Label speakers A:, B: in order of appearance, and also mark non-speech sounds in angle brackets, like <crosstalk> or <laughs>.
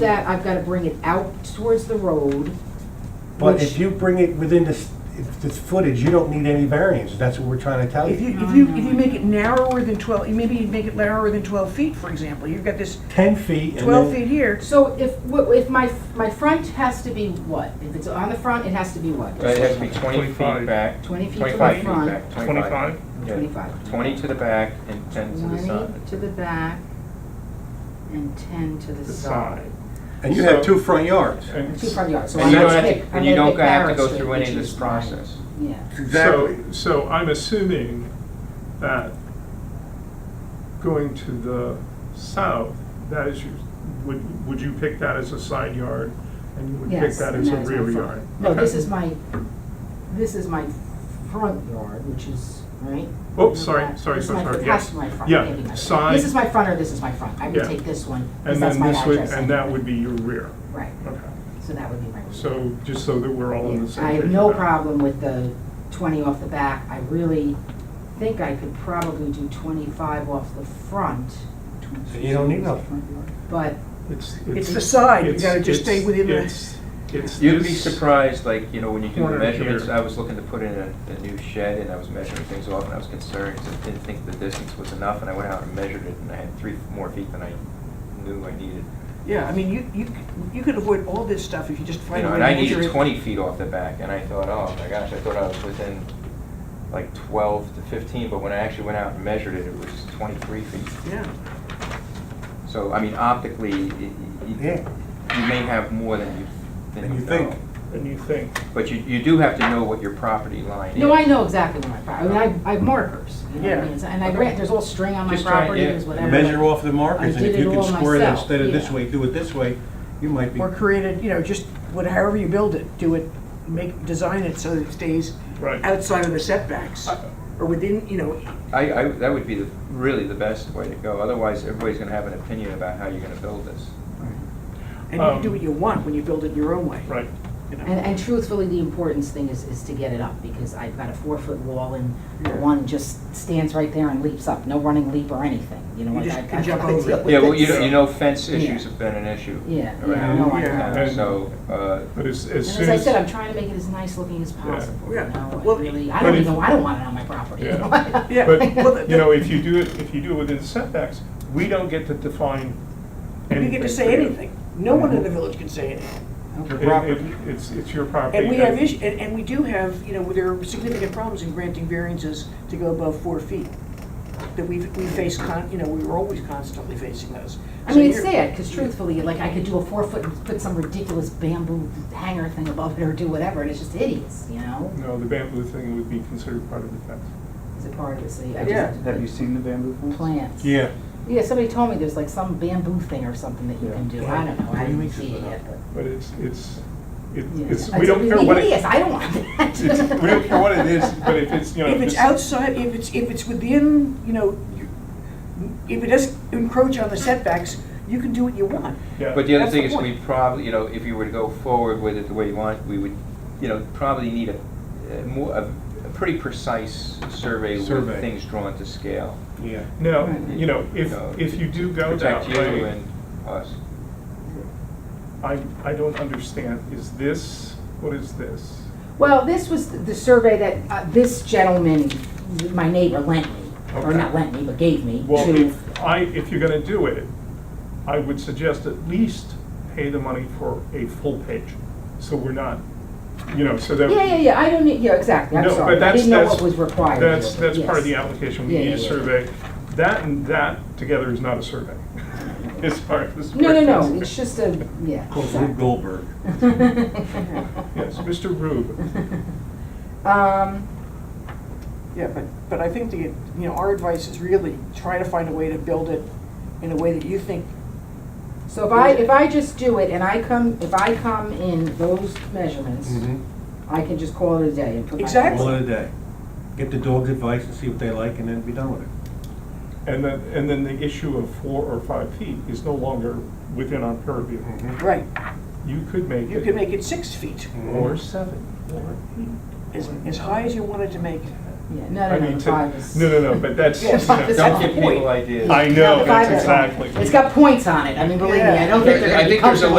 A: that, I've gotta bring it out towards the road.
B: But
A: which-
B: if you bring it within this, if this footage, you don't need any variance, that's what we're trying to tell
C: If
B: you.
C: you, if you, if you make it narrower than twelve, maybe you'd make it narrower than twelve feet, for example, you've got this
B: Ten feet and
C: twelve
B: then,
C: feet here,
A: So if, wh- if my, my front has to be what? If it's on the front, it has to be what?
D: Right, it has to be twenty feet
E: 25.
D: back.
A: 20 feet to the
D: 25 feet
A: front.
D: back,
E: 25?
D: Yeah.
A: Twenty-five.
D: Twenty to the back and ten to the side.
A: Twenty to the back and ten to the
E: the
A: side.
E: side.
B: and you have
D: So-
B: two front yards.
A: And
E: And
A: Two front yards, so
D: And
A: I'm
D: you
A: gonna
D: don't have
A: pick,
D: to,
A: I'm
D: and you
A: gonna
D: don't
A: pick
D: have to
A: Barrett
D: go
A: Street,
D: through any
A: which
D: of this
A: is my-
D: process.
A: Yeah,
E: So, so I'm assuming that going to the south, that is, your- would, would you pick that as a side yard? And you would pick
A: yes.
E: that
A: and
E: as a
A: that is my
E: rear
A: front.
E: yard?
A: No,
E: Okay.
A: this is my, this is my front yard, which is, right?
E: Oh, sorry, sorry,
A: This
E: so
A: is my-
E: sorry,
A: that's
E: yes.
A: my front,
E: Yeah,
A: maybe my front.
E: side-
A: This is my front or this is my front, I would
E: Yeah.
A: take this one, because
E: And
A: that's
E: then
A: my
E: this would,
A: address.
E: and that would be your rear,
A: Right,
E: okay.
A: so that would be my.
E: So, just so that we're all on the same
A: I
E: page.
A: have no
E: about it.
A: problem with the twenty off the back. I really think I could probably do twenty-five off the front,
B: You don't need no,
A: but
C: it's the side, you
E: It's-
C: gotta just stay
E: it's-
C: within the,
E: It's, it's
D: You'd be
E: this-
D: surprised, like, you know, when you do the
E: Corner here.
D: measurements, I was looking to put in a, a new shed and I was measuring things off and I was concerned, 'cause I didn't think the distance was enough and I went out and measured it and I had three more feet than I knew I needed.
C: yeah, I mean, you, you, c- you could avoid all this stuff if you just
D: You
C: find a
D: know,
C: way to
D: and I
C: measure
D: needed
C: it.
D: twenty feet off the back, and I thought, oh my gosh, I thought I was within like twelve to fifteen, but when I actually went out and measured it, it was twenty-three feet.
C: Yeah,
D: So, I mean, optically, y- y-
B: yeah.
D: y- you may have more than you,
B: Than
D: than
B: you
D: you
B: think.
D: know.
E: And you think,
D: But you, you do have to know what your property line is.
A: No, I know exactly where my property, I mean, I, I have markers, you know what I
C: Yeah.
A: mean? And I ran, there's all string on my
D: Just try-
A: property,
D: yeah.
A: there's whatever.
B: Measure
A: like-
B: off the markers,
A: I
B: and if
A: did
B: you
A: it
B: can
A: all
B: square it
A: myself,
B: instead of this
A: yeah.
B: way, do it this way, you might be.
C: or created, you know, just, what, however you build it, do it, make, design it so that it stays
E: right.
C: outside of the setbacks, or within, you know,
D: I, I, that would be the, really the best way to go, otherwise everybody's gonna have an opinion about how you're gonna build this.
C: and you can do what you want when you build it your own way,
E: Um, Right.
C: you know.
A: And, and truthfully, the importance thing is, is to get it up, because I've got a four-foot wall and the
C: Yeah.
A: one just stands right there and leaps up, no running leap or anything, you know?
C: You
A: like
C: just
A: I've-
C: can
A: I've
C: jump
A: got-
C: over it.
D: Yeah, well, you know,
E: Yeah.
D: you know fence issues
A: Yeah.
D: have been an issue.
A: Yeah, yeah,
D: around
A: no, I
C: Yeah.
A: know.
D: town,
E: And-
D: So, uh,
E: But as, as
A: And as
E: soon
A: I
E: as,
A: said, I'm trying to make it as nice looking as possible, you
C: Yeah.
A: know,
C: Well,
A: I really, I
E: but
A: don't
E: if-
A: even, I don't want it on my property.
E: Yeah.
A: <laughs>
C: Yeah, <laughs>
E: But,
C: well, the-
E: you know, if you do it, if you do it within setbacks, we don't get to define
C: We
E: anything. Mm-hmm.
C: get to
E: for
C: say
E: you.
C: anything. No one in the village can say anything.
E: It- it- It's, it's your property.
C: And we have issues, and, and we do have, you know, there are significant problems in granting variances to go above four feet. That we, we face con, you know, we were always constantly facing those.
A: I mean, it's
C: So
A: sad, because truthfully, like, I could do a four foot and put some ridiculous bamboo hanger thing above it or do whatever, and it's just hideous, you know?
E: No, the bamboo thing would be considered part of the fence.
A: It's a part of it, so I
C: Yeah.
A: just.
F: Have you seen the bamboo fence?
A: Plants.
B: Yeah,
A: Yeah, somebody told me there's like some bamboo thing or something that you
F: Yeah.
A: can do, I don't know, I
F: Yeah.
A: didn't see it yet, but.
E: But it's, it's, it-
A: yeah.
E: it's, we don't care what it,
A: Hideous, I don't want that.
E: <laughs> it's- we don't care what it is, but if it's, you know.
C: If it's outside, if it's, if it's within, you know, you- if it doesn't encroach on the setbacks, you can do what you want.
E: Yeah.
D: But the other
C: That's
D: thing
C: the
D: is,
C: point.
D: we probably, you know, if you were to go forward with it the way you want, we would, you know, probably need a, a more, a a pretty precise survey with
B: Survey.
D: things drawn to scale.
B: yeah.
E: No,
A: Right.
E: you know, if,
D: No.
E: if you do go that
D: Protect you
E: way,
D: and us.
E: I, I don't understand, is this, what is this?
A: Well, this was th- the survey that uh, this gentleman, my neighbor, lent me, or
E: Okay.
A: not lent me, but gave me
E: Well,
A: to,
E: if I, if you're gonna do it, I would suggest at least pay the money for a full page, so we're not, you know, so that.
A: yeah, yeah, yeah, I don't, need- yeah, exactly, I'm
E: No, but
A: sorry, I
E: that's-
A: didn't know
E: that's-
A: what was required.
E: That's,
A: of it,
E: that's part of the
A: yes.
E: application, we
A: Yeah,
E: need
A: yeah,
E: a
A: yeah.
E: survey. That and that together is not a survey, <laughs> as far as. this
A: No, no,
E: works.
A: no, it's just a, yeah.
B: Called Rube
A: exactly.
B: Goldberg.
E: Yes, Mr. Rube,
A: <laughs> Um,
C: Yeah, but, but I think the, you know, our advice is really try to find a way to build it in a way that you think
A: so if I, if I just do it and I come, if I come in those measurements,
E: Mm-hmm.
A: I can just call it a day and put my.
C: Exactly.
B: Call it a day. Get the dog's advice and see what they like, and then be done with it.
E: and then, and then the issue of four or five feet is no longer within our purview.
C: Right,
E: Mm-hmm. You could make Mm-hmm. it.
C: you
B: Mm-hmm.
C: could make it six feet,
E: Or seven, or eight.
C: as, as high as you wanted to make it.
A: Yeah, no,
E: I
A: no, no,
E: mean,
A: the
E: to-
A: five is.
E: No, no, no, but that's, you
A: Yeah, five
E: know,
A: is
D: Don't
A: That's
D: give
A: the point.
D: people ideas.
E: I
A: No,
E: know,
A: the five
E: that's
A: is on it.
E: exactly.
A: It's got points on it, I mean, believe me, I don't think they're
D: Yeah.
A: gonna
D: I
A: be
D: think there's a
A: comfortable